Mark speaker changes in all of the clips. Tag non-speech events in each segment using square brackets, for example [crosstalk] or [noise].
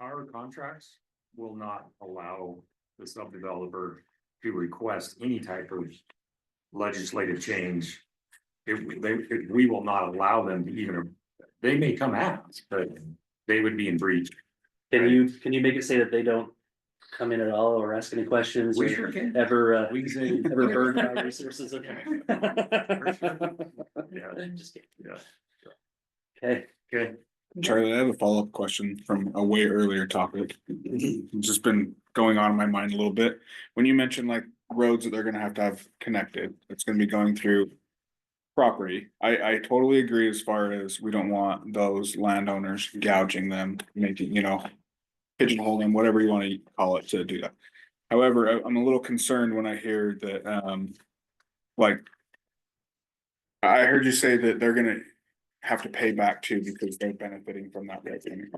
Speaker 1: our contracts will not allow the sub-developer to request any type of legislative change. If we, they, if we will not allow them to even, they may come at us, but they would be in breach.
Speaker 2: Can you, can you make it say that they don't come in at all or ask any questions
Speaker 1: We
Speaker 2: or
Speaker 1: sure can.
Speaker 2: ever, uh,
Speaker 1: We say.
Speaker 2: ever burn
Speaker 1: [laughs]
Speaker 2: our resources? of-
Speaker 1: Yeah,
Speaker 2: [laughs] Just kidding.
Speaker 1: yeah.
Speaker 2: Okay,
Speaker 1: Okay,
Speaker 3: Charlie, I have a follow-up question from a way earlier topic. It's Just been going on in my mind a little bit. When you mentioned like roads that they're gonna have to have connected, it's gonna be going through. Property, I, I totally agree as far as we don't want those landowners gouging them, making, you know. Pigeonholing, whatever you wanna call it to do that. However, I, I'm a little concerned when I hear that, um, like. I heard you say that they're gonna have to pay back to because they're benefiting from that revenue.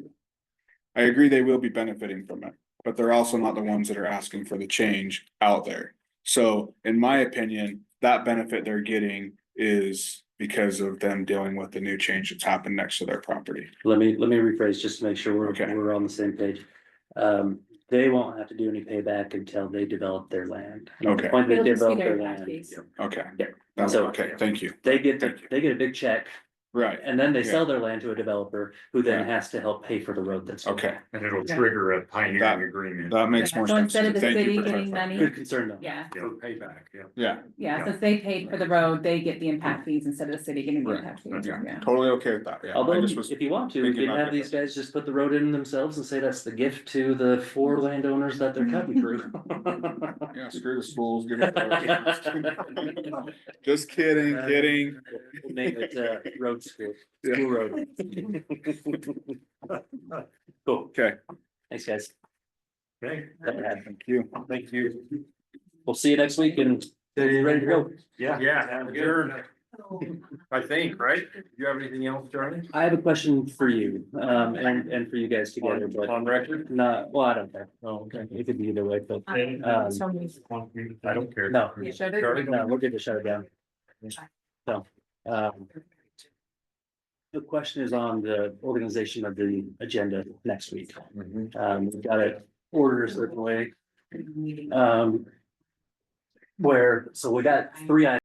Speaker 3: I agree they will be benefiting from it, but they're also not the ones that are asking for the change out there. So in my opinion, that benefit they're getting is because of them dealing with the new change that's happened next to their property.
Speaker 2: let me, let me rephrase just to make sure we're,
Speaker 3: Okay.
Speaker 2: we're on the same page. Um, they won't have to do any payback until they develop their land. And at the
Speaker 3: Okay.
Speaker 2: point they
Speaker 4: It'll just be
Speaker 2: develop
Speaker 4: their
Speaker 2: their
Speaker 4: tax
Speaker 2: land,
Speaker 4: base.
Speaker 3: Okay.
Speaker 2: Yeah.
Speaker 3: That's
Speaker 2: So-
Speaker 3: okay, thank you.
Speaker 2: They get, the-
Speaker 3: Thank you.
Speaker 2: they get a big check
Speaker 3: Right,
Speaker 2: and then they sell their land to a developer who then has to help pay for the road that's.
Speaker 3: okay,
Speaker 1: and it'll trigger a
Speaker 3: That-
Speaker 1: pioneering agreement.
Speaker 3: that makes more
Speaker 4: So
Speaker 3: sense.
Speaker 4: instead of the
Speaker 3: Thank you
Speaker 4: city
Speaker 3: for
Speaker 4: getting
Speaker 3: clarifying.
Speaker 4: money,
Speaker 2: Good concern though.
Speaker 4: yeah,
Speaker 1: Yeah, payback, yeah.
Speaker 3: Yeah,
Speaker 4: yeah, since they paid for the road, they get the impact fees instead of the city getting the
Speaker 3: Right.
Speaker 4: impact fees,
Speaker 3: yeah,
Speaker 4: yeah.
Speaker 3: totally okay with that, yeah. I
Speaker 2: Although,
Speaker 3: just was-
Speaker 2: if you want to, we
Speaker 3: thinking
Speaker 2: can
Speaker 3: about
Speaker 2: have these guys just put the road in themselves and say that's the gift to the four landowners that they're cutting
Speaker 3: [laughs]
Speaker 2: through. [laughs]
Speaker 3: Yeah, screw the schools, give
Speaker 2: [laughs]
Speaker 3: it. to them. Just kidding, kidding.
Speaker 2: We'll Name it, uh, road school,
Speaker 3: Yeah.
Speaker 2: school road. Cool,
Speaker 3: Okay.
Speaker 2: thanks, guys.
Speaker 1: Okay,
Speaker 2: That would happen.
Speaker 3: Thank you.
Speaker 1: thank you.
Speaker 2: We'll see you next week and ready to go.
Speaker 1: Yeah. Yeah. Adjourned, I think, right? Do you have anything else, Charlie?
Speaker 2: I have a question for you, um, and, and for you guys together,
Speaker 1: On,
Speaker 2: but
Speaker 1: on record?
Speaker 2: not, well, I don't care.
Speaker 1: Oh, okay.
Speaker 2: It could be either way, but
Speaker 1: Um,
Speaker 2: so
Speaker 1: I don't care.
Speaker 2: no.
Speaker 4: Shut
Speaker 1: Charlie?
Speaker 4: it.
Speaker 2: No, we're good to shut it down. So, um. The question is on the organization of the agenda next week.
Speaker 1: Mm-hmm.
Speaker 2: Um, we've got it ordered a certain way, um. Where, so we got three items.